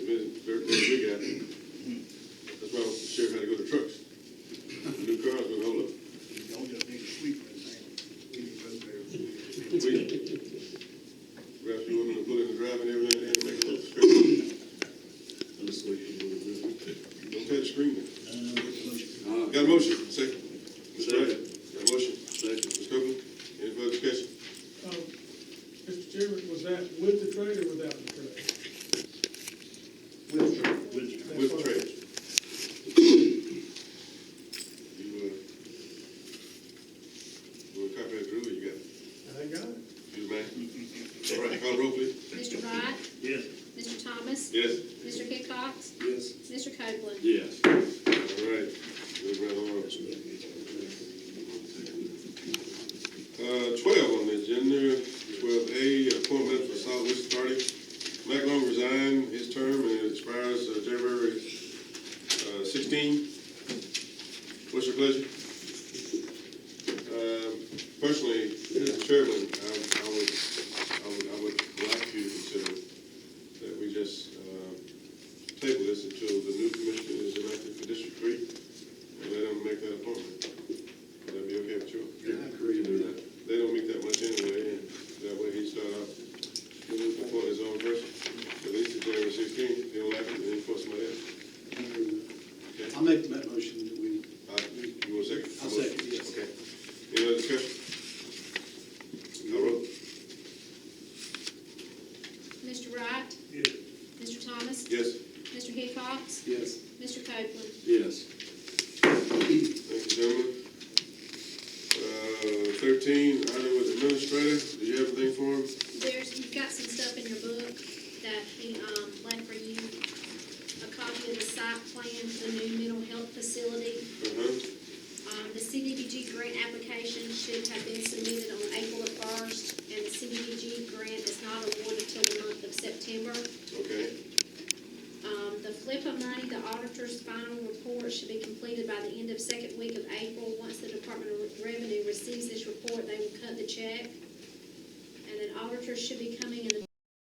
agreement. Uh, Aye. Uh, Got a motion, second. Mr. Wright, got a motion? Second. Ms. Copeland, any further discussion? Um, Mr. Chairman, was that with the trade or without the trade? With trade. With- With trade. You, uh, you want a copy of the rule, you got it? I got it. You the man? All right, call the roll, please. Mr. Wright, Yes. Mr. Thomas, Yes. Mr. Hickox, Yes. Mr. Copeland. Yes. All right, move right along. Uh, twelve on the agenda, twelve A, appointment for solid waste authority. Mac Long resigned his term and it expires uh, January, uh, sixteen. What's your pleasure? Um, personally, as chairman, I, I would, I would, I would like you to consider that we just, uh, table this until the new commissioner is elected for District Three and let them make that appointment. Would that be okay with you? Yeah, I agree with that. They don't make that much anyway, and that way he start out, doing it for his own person. At least if they're sixteen, they don't like it, then he puts somebody else. Okay? I'll make that motion that we, All right, Uh, You want a second? I'll second, yes. Okay. Any other discussion? Call roll. Mr. Wright, Yes. Mr. Thomas, Yes. Mr. Hickox, yes, Mr. Copeland. Yes. Thank you, gentlemen. Uh, thirteen, item with administrator, do you have anything for him? There's, you've got some stuff in your book that he, um, left for you. A copy of the site plan for the new mental health facility. Uh-huh. Um, the CDBG grant application should have been submitted on April the first, and the CDBG grant is not awarded till the month of September. Okay, Um, the flip of money, the auditor's final report should be completed by the end of second week of April. Once the Department of Revenue receives this report, they will cut the check. And an auditor should be coming in the